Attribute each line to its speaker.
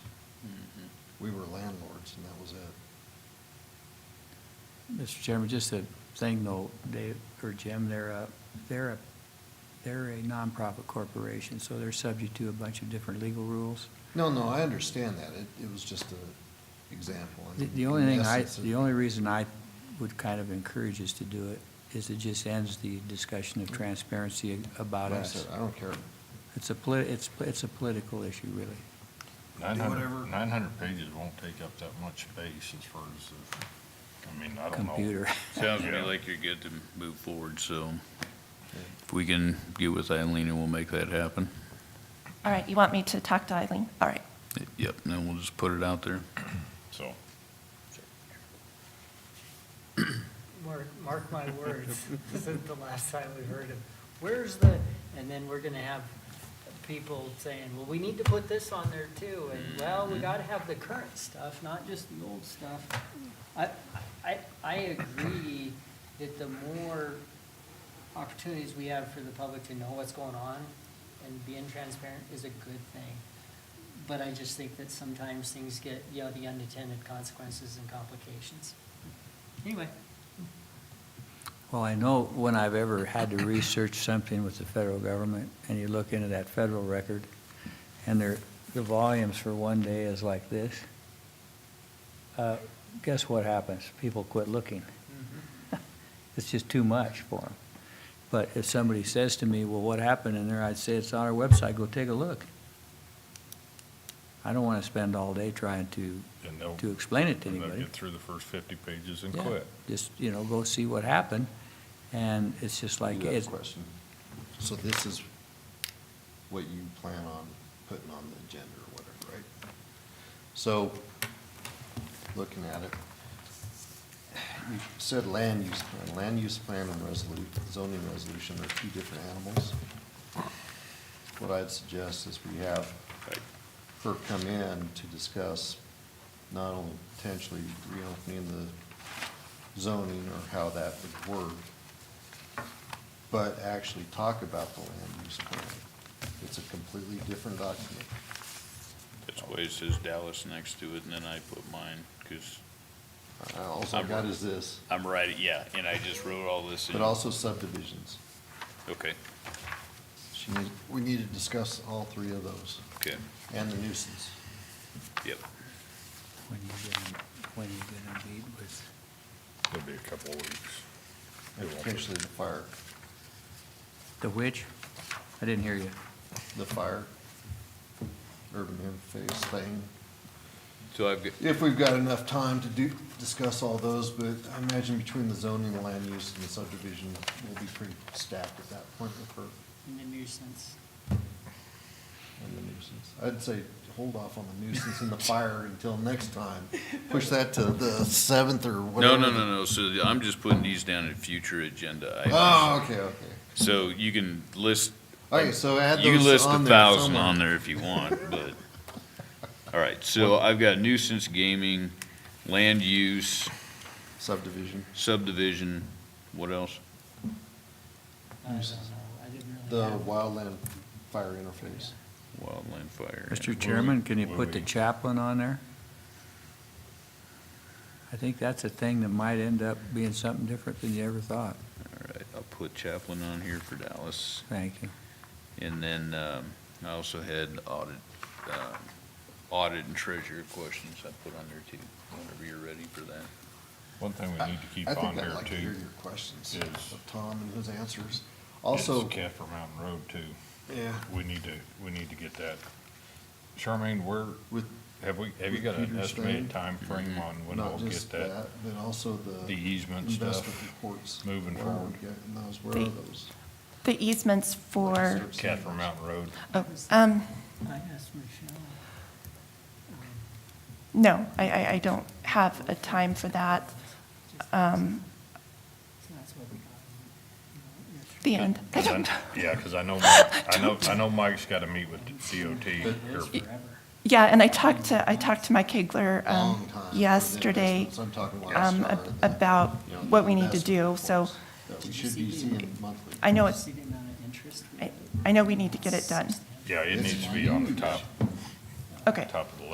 Speaker 1: we were landlords and that was it.
Speaker 2: Mr. Chairman, just a thing though, Dave, or Jim, they're a, they're a, they're a nonprofit corporation, so they're subject to a bunch of different legal rules.
Speaker 1: No, no, I understand that. It, it was just a example. I
Speaker 2: The-
Speaker 1: mean,
Speaker 2: The only
Speaker 1: in
Speaker 2: thing I,
Speaker 1: essence, it-
Speaker 2: the only reason I would kind of encourage us to do it is it just ends the discussion of transparency about
Speaker 1: like I
Speaker 2: us.
Speaker 1: said, I don't care.
Speaker 2: It's a polit, it's, it's a political issue, really.
Speaker 3: Nine
Speaker 1: whatever.
Speaker 3: hundred, nine hundred pages won't take up that much space as far as, the- I mean, I don't know.
Speaker 2: Computer.
Speaker 4: Sounds to me
Speaker 3: Yeah.
Speaker 4: like you're good to move forward, so if we can get with Eileen and we'll make that happen.
Speaker 5: All right, you want me to talk to Eileen? All right.
Speaker 4: Yep, and then we'll just put it out there.
Speaker 3: So,
Speaker 6: Mark, mark my words, this is the last time we heard of, where's the, and then we're gonna have people saying, well, we need to put this on there too, and well, we gotta have the current stuff, not just the old stuff. I, I, I agree that the more opportunities we have for the public to know what's going on and being transparent is a good thing. But I just think that sometimes things get, you know, the unintended consequences and complications. Anyway.
Speaker 2: Well, I know when I've ever had to research something with the federal government, and you look into that federal record, and there, the volumes for one day is like this, uh, guess what happens? People quit looking. It's just too much for them. But if somebody says to me, well, what happened in there, I'd say, it's on our website, go take a look. I don't want to spend all day trying to,
Speaker 3: and they'll,
Speaker 2: to explain it to
Speaker 3: and they'll
Speaker 2: anybody.
Speaker 3: get through the first fifty pages and
Speaker 2: Yeah,
Speaker 3: quit.
Speaker 2: Just, you know, go see what happened, and it's just
Speaker 1: You
Speaker 2: like,
Speaker 1: have a
Speaker 2: it's,
Speaker 1: question. So this is what you plan on putting on the agenda or whatever, right? So, looking at it, you said land use plan. Land use plan and resolu, zoning resolution are two different animals. What I'd suggest is we have her come in to discuss not only potentially reopening the zoning or how that would work, but actually talk about the land use plan. It's a completely different document.
Speaker 4: That's why it says Dallas next to it, and then I put mine, because
Speaker 1: Uh, All I got is this,
Speaker 4: I'm right, yeah, and I just wrote all this in.
Speaker 1: but also subdivisions.
Speaker 4: Okay,
Speaker 1: She need, we need to discuss all three of those
Speaker 4: okay,
Speaker 1: and the nuisance.
Speaker 4: yep.
Speaker 2: When you gonna, when you gonna meet with,
Speaker 3: It'll be a couple of weeks. It
Speaker 1: And
Speaker 3: won't be-
Speaker 1: potentially the fire,
Speaker 2: the which? I didn't hear you.
Speaker 1: the fire, urban interface thing.
Speaker 4: So I've, got
Speaker 1: If we've got enough time to do, discuss all those, but I imagine between the zoning, the land use, and the subdivision, we'll be pretty stacked at that point with her.
Speaker 6: And the nuisance.
Speaker 1: on the nuisance. I'd say hold off on the nuisance and the fire until next time. Push that to the seventh or
Speaker 4: no,
Speaker 1: whatever.
Speaker 4: no, no, no, so I'm just putting these down in future agenda items.
Speaker 1: Oh, okay, okay.
Speaker 4: So you can list,
Speaker 1: Okay, so add
Speaker 4: you can
Speaker 1: those
Speaker 4: list a
Speaker 1: on there
Speaker 4: thousand
Speaker 1: somewhere.
Speaker 4: on there if you want, but, all right, so I've got nuisance gaming, land use,
Speaker 1: Subdivision,
Speaker 4: subdivision, what else?
Speaker 6: I don't know, I didn't really
Speaker 1: the
Speaker 6: have.
Speaker 1: wildland fire interface.
Speaker 4: Wildland fire.
Speaker 2: Mr. Chairman, can you
Speaker 3: will
Speaker 2: put the
Speaker 3: we-
Speaker 2: chaplain on there? I think that's a thing that might end up being something different than you ever thought.
Speaker 4: All right, I'll put Chaplin on here for Dallas,
Speaker 2: Thank you.
Speaker 4: and then, um, I also had audit, um, audit and treasurer questions I put on there too, whenever you're ready for that.
Speaker 3: One thing we need to keep
Speaker 1: I think
Speaker 3: on
Speaker 1: I'd
Speaker 3: here
Speaker 1: like to hear
Speaker 3: too,
Speaker 1: your questions
Speaker 3: is-
Speaker 1: of Tom and his answers.
Speaker 3: is
Speaker 1: Also,
Speaker 3: Kaffir Mountain Road too.
Speaker 1: yeah,
Speaker 3: We need to, we need to get that. Charmaine, where,
Speaker 1: with
Speaker 3: have we, have you
Speaker 1: With
Speaker 3: got an
Speaker 1: Peter's
Speaker 3: estimated
Speaker 1: thing?
Speaker 3: time frame on when we'll
Speaker 1: not
Speaker 3: get
Speaker 1: just
Speaker 3: that,
Speaker 1: that, but also the.
Speaker 3: the easement
Speaker 1: investment
Speaker 3: stuff?
Speaker 1: reports.
Speaker 3: moving
Speaker 1: Where are we
Speaker 3: forward.
Speaker 1: getting those? Where are those?
Speaker 5: The easements for,
Speaker 3: Catherine Mountain Road,
Speaker 5: oh, um,
Speaker 6: I asked Michelle.
Speaker 5: no, I, I, I
Speaker 6: um,
Speaker 5: don't have a time for that. Um,
Speaker 6: So that's what we got.
Speaker 5: the end. I
Speaker 3: 'cause I-
Speaker 5: don't,
Speaker 3: yeah, cause I know, Mike- I know, I know Mike's gotta meet with DOT here
Speaker 6: It is forever.
Speaker 5: yeah, and I talked to, I talked to Mike Kegler,
Speaker 1: Long
Speaker 5: um,
Speaker 1: time for the
Speaker 5: yesterday,
Speaker 1: investments. I'm talking last
Speaker 5: um,
Speaker 1: summer,
Speaker 5: ab-
Speaker 1: the,
Speaker 5: about
Speaker 1: you know,
Speaker 5: what we need to do,
Speaker 1: investment
Speaker 5: so
Speaker 1: reports That we should be seeing monthly.
Speaker 5: I know
Speaker 6: Did you
Speaker 5: it's,
Speaker 6: See the amount of interest we
Speaker 5: I,
Speaker 6: have?
Speaker 5: I know we need to get it done.
Speaker 3: Yeah, it needs to be on the top,
Speaker 5: Okay.
Speaker 3: top of the list.